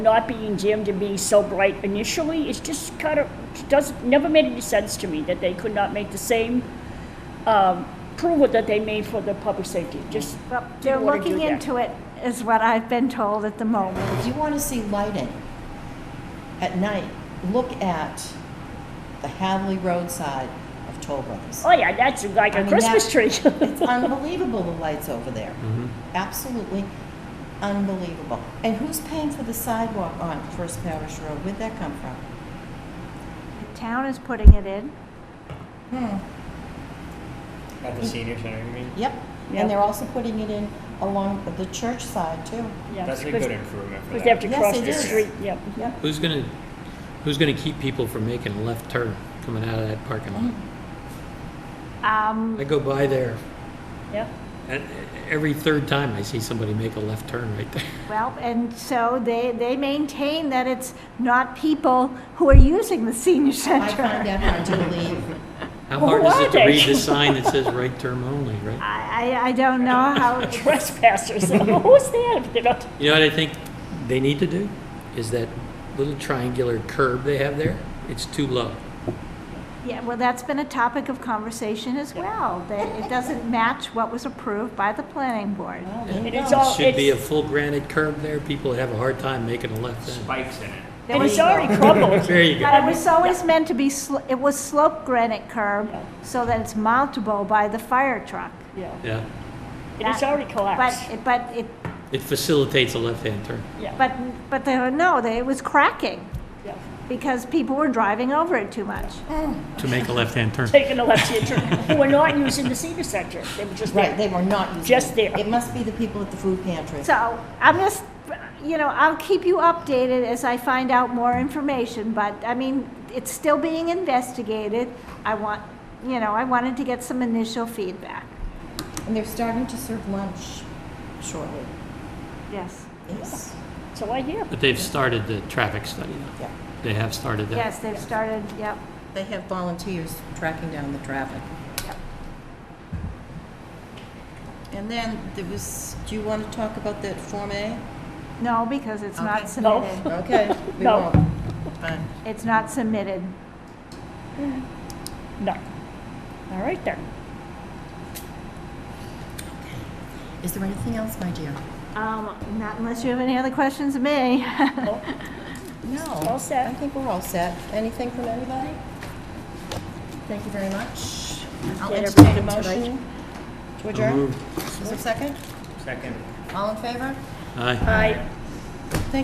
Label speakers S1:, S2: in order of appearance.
S1: not being Jim to be so bright initially, it's just kind of, it doesn't, never made any sense to me that they could not make the same um, approval that they made for the public safety, just.
S2: Well,
S1: didn't
S2: they're
S1: wanna do
S2: looking
S1: that.
S2: into it, is what I've been told at the moment.
S3: If you want to see lighting at night, look at the Hadley roadside of Toll Brothers.
S1: Oh, yeah, that's like
S3: I
S1: a
S3: mean,
S1: Christmas
S3: that-
S1: tree.
S3: It's unbelievable, the lights over there. Absolutely unbelievable. And who's paying for the sidewalk on First Parish Road? Where'd that come from?
S2: The town is putting it in.
S4: At the senior center, you mean?
S3: Yep,
S1: Yep.
S3: and they're also putting it in along the church side too.
S1: Yeah,
S4: That's a
S1: because-
S4: good improvement for
S1: Because they have
S4: that.
S1: to
S3: Yes,
S1: cross
S3: it
S1: the
S3: is.
S1: street, yep. Yep.
S5: Who's gonna, who's gonna keep people from making a left turn coming out of that parking lot?
S2: Um,
S5: I go by there,
S1: Yep.
S5: and every third time I see somebody make a left turn right there.
S2: well, and so they, they maintain that it's not people who are using the senior
S3: I find
S2: center.
S3: that hard to believe.
S5: How
S1: Well,
S5: hard
S1: who
S5: is
S1: are
S5: it to
S1: they?
S5: read the sign that says right turn only, right?
S2: I, I, I don't know how,
S1: Trespassers, who's that if they're not?
S5: You know what I think they need to do? Is that little triangular curb they have there, it's too low.
S2: yeah, well, that's been a topic of conversation as well. That it doesn't match what was approved by the planning board.
S3: Well, there you
S1: And it's
S3: go.
S1: all-
S5: Should be a
S1: it's-
S5: full granite curb there, people have a hard time making a left turn.
S4: Spikes in it.
S2: There
S1: And
S2: was-
S1: it's already crumbled.
S5: There you go.
S2: But it was always meant to be, sl- it was slope granite curb, so that it's mountable by the fire truck.
S1: Yeah,
S5: Yeah,
S1: and it's already
S2: But,
S1: collapsed.
S2: but it,
S5: it facilitates a left-hand turn.
S1: Yeah,
S2: but, but there, no, they- it was cracking,
S1: yeah.
S2: because people were driving over it too much.
S5: To make a left-hand turn.
S1: Taking a left hand turn, who were not using the senior center, they were just
S3: Right,
S1: there.
S3: they were not using it.
S1: Just there.
S3: It must be the people at the food pantry.
S2: So, I'm just, you know, I'll keep you updated as I find out more information, but, I mean, it's still being investigated. I want, you know, I wanted to get some initial feedback,
S3: And they're starting to serve lunch shortly.
S2: yes.
S3: Yes,
S1: So I hear.
S5: But they've started the traffic study now.
S3: yeah.
S5: They have started that.
S2: Yes, they've started, yep.
S3: They have volunteers tracking down the traffic.
S2: Yep.
S3: And then there was, do you want to talk about that Form A?
S2: No, because it's
S3: Okay.
S2: not
S1: No.
S2: submitted.
S3: Okay, we
S1: No.
S3: won't. Fine.
S2: It's not submitted.
S1: No. All right then.
S3: Is there anything else, my dear?
S2: Um, not unless you have any other questions of me.
S1: Well,
S3: No.
S1: All set.
S3: I think we're all set. Anything from anybody? Thank you very much. I'll
S1: Get
S3: entertain a
S1: everything to right.
S3: motion to adjourn.
S5: moved.
S3: Is there a second?
S4: Second.
S3: All in favor?
S5: Aye.
S1: I,